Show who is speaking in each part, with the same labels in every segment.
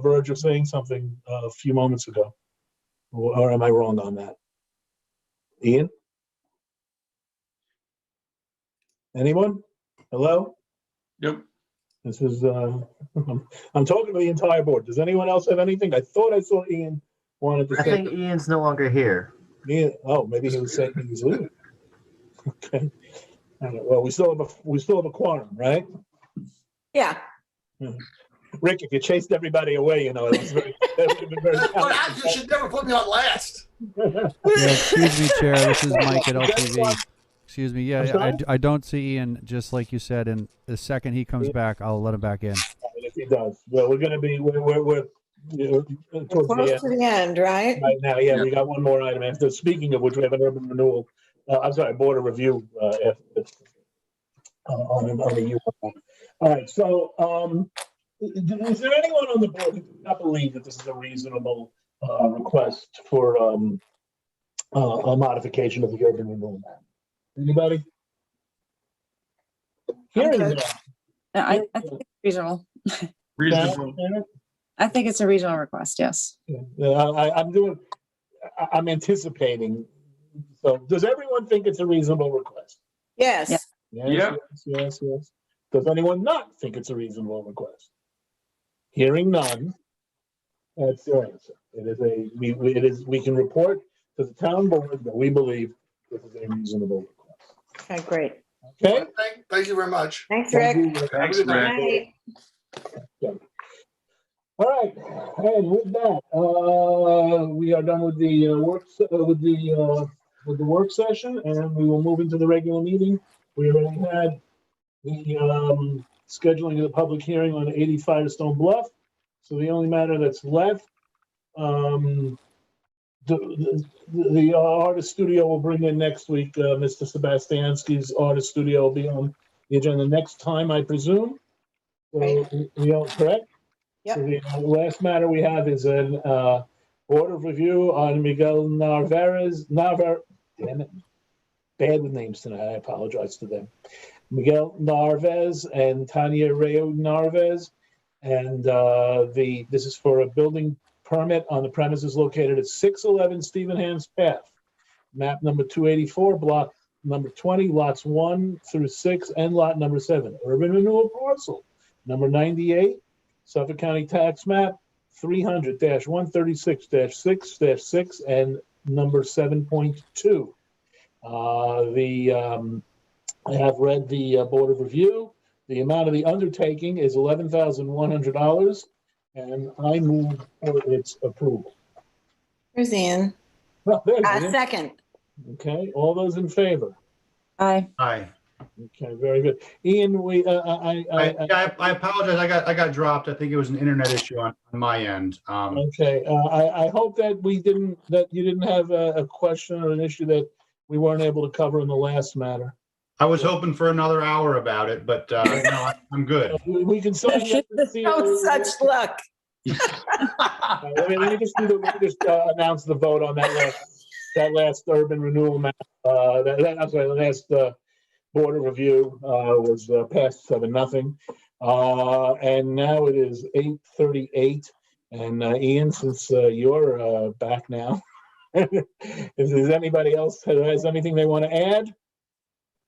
Speaker 1: verge of saying something uh, a few moments ago. Or or am I wrong on that? Ian? Anyone? Hello?
Speaker 2: Yep,
Speaker 1: This is, uh, I'm I'm talking to the entire board. Does anyone else have anything? I thought I saw Ian wanted to
Speaker 3: I
Speaker 1: say,
Speaker 3: think Ian's no longer here.
Speaker 1: Ian, oh, maybe he was saying he was leaving. Okay. All right, Well, we still have a, we still have a quorum, right?
Speaker 4: Yeah,
Speaker 1: Rick, if you chased everybody away, you know, it was very, that would have been very.
Speaker 5: What happened? You should never put me on last.
Speaker 6: Yeah, excuse me, Chair. This is Mike at
Speaker 1: That's why-
Speaker 6: LTV. Excuse me.
Speaker 1: I'm
Speaker 6: Yeah, I,
Speaker 1: sorry?
Speaker 6: I don't see Ian, just like you said. And the second he comes
Speaker 1: Yeah.
Speaker 6: back, I'll let him back in.
Speaker 1: And if he does, well, we're gonna be, we're, we're, we're, you know,
Speaker 4: we're
Speaker 1: towards the
Speaker 4: close to
Speaker 1: end
Speaker 4: the end, right?
Speaker 1: right now, yeah, we got one more item after, speaking of which, we have an urban renewal, uh, I'm sorry, board of review, uh, after, uh, on, on the U. All right, so, um, is there anyone on the board who does not believe that this is a reasonable, uh, request for, um, uh, a modification of the urban renewal map? Anybody? Hearing
Speaker 7: Okay.
Speaker 1: none.
Speaker 7: No, I, I think it's reasonable.
Speaker 2: reasonable.
Speaker 7: I think it's a reasonable request, yes.
Speaker 1: Yeah, I, I- I'm doing, I, I'm anticipating. So does everyone think it's a reasonable request?
Speaker 7: Yeah.
Speaker 4: Yes,
Speaker 1: Yes,
Speaker 2: Yeah.
Speaker 1: Yes, yes, yes. Does anyone not think it's a reasonable request? Hearing none, that's your answer. It is a, we, we- it is, we can report to the town board that we believe this is a reasonable request.
Speaker 4: okay, great.
Speaker 1: Okay?
Speaker 5: Thank, thank you very much.
Speaker 4: Thanks, Rick.
Speaker 2: Thanks,
Speaker 5: Have a good
Speaker 2: Rick.
Speaker 5: night.
Speaker 4: Bye.
Speaker 1: All right, and with that, uh, we are done with the uh, work, se- uh, with the, uh, with the work session, and we will move into the regular meeting. We already had the, um, scheduling of the public hearing on 80 Firestone Bluff. So the only matter that's left, um, the, the, the artist studio will bring in next week, uh, Mr. Sebastianski's artist studio will be on the agenda next time, I presume. So,
Speaker 4: Right.
Speaker 1: we- we all correct?
Speaker 4: Yep.
Speaker 1: So The last matter we have is an uh, board of review on Miguel Narvarez, Narvar, damn it. Bad with names tonight. I apologize to them. Miguel Narvez and Tanya Rayo Narvez. And uh, the, this is for a building permit on the premises located at 611 Stevenhams Path. Map number 284, block number 20, lots 1 through 6, and lot number 7. Urban renewal parcel, number 98, Suffolk County Tax Map 300-136-6-6 and number 7.2. Uh, The, um, I have read the uh, Board of Review. The amount of the undertaking is $11,100, and I move for its approval.
Speaker 4: Here's Ian.
Speaker 1: Well, there
Speaker 4: Uh,
Speaker 1: you go.
Speaker 4: second,
Speaker 1: Okay, all those in favor?
Speaker 7: Aye.
Speaker 8: Hi.
Speaker 1: Okay, very good. Ian, we, uh, I, I,
Speaker 8: I, I I apologize. I got, I got dropped. I think it was an internet issue on, on my end. Um,
Speaker 1: Okay, uh, I, I hope that we didn't, that you didn't have a, a question or an issue that we weren't able to cover in the last matter.
Speaker 8: I was hoping for another hour about it, but, uh, no, I- I'm good.
Speaker 1: We we can sign up and see.
Speaker 4: no Oh, such luck.
Speaker 1: Uh, Let me, let me just do the, let me just, uh, announce the vote on that last, that last urban renewal map. Uh, that, that, I'm sorry, the last, uh, border review, uh, was uh, passed seven, nothing. Uh, and now it is eight thirty-eight. And uh, Ian, since, uh, you're, uh, back now, is, is anybody else, that has anything they want to add?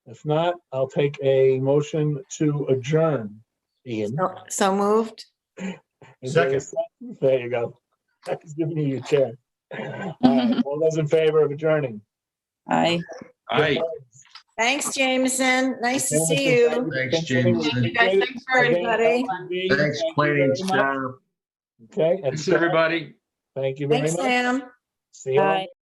Speaker 1: If not, I'll take a motion to adjourn, Ian.
Speaker 4: So- So moved.
Speaker 1: Is there a
Speaker 8: Second.
Speaker 1: second? There you go. That's giving you your chair. All right, All those in favor of adjourning?
Speaker 7: Aye.
Speaker 2: Aye.
Speaker 4: Thanks, Jameson. Nice to see you.
Speaker 5: Thanks,
Speaker 1: Jameson.
Speaker 9: guys. Thanks for
Speaker 4: everybody.
Speaker 1: Thanks, planning staff. Okay, and
Speaker 2: Thanks, everybody.
Speaker 1: thank you very
Speaker 4: Thanks,
Speaker 1: much.
Speaker 4: Sam.
Speaker 1: See you all.
Speaker 7: Bye.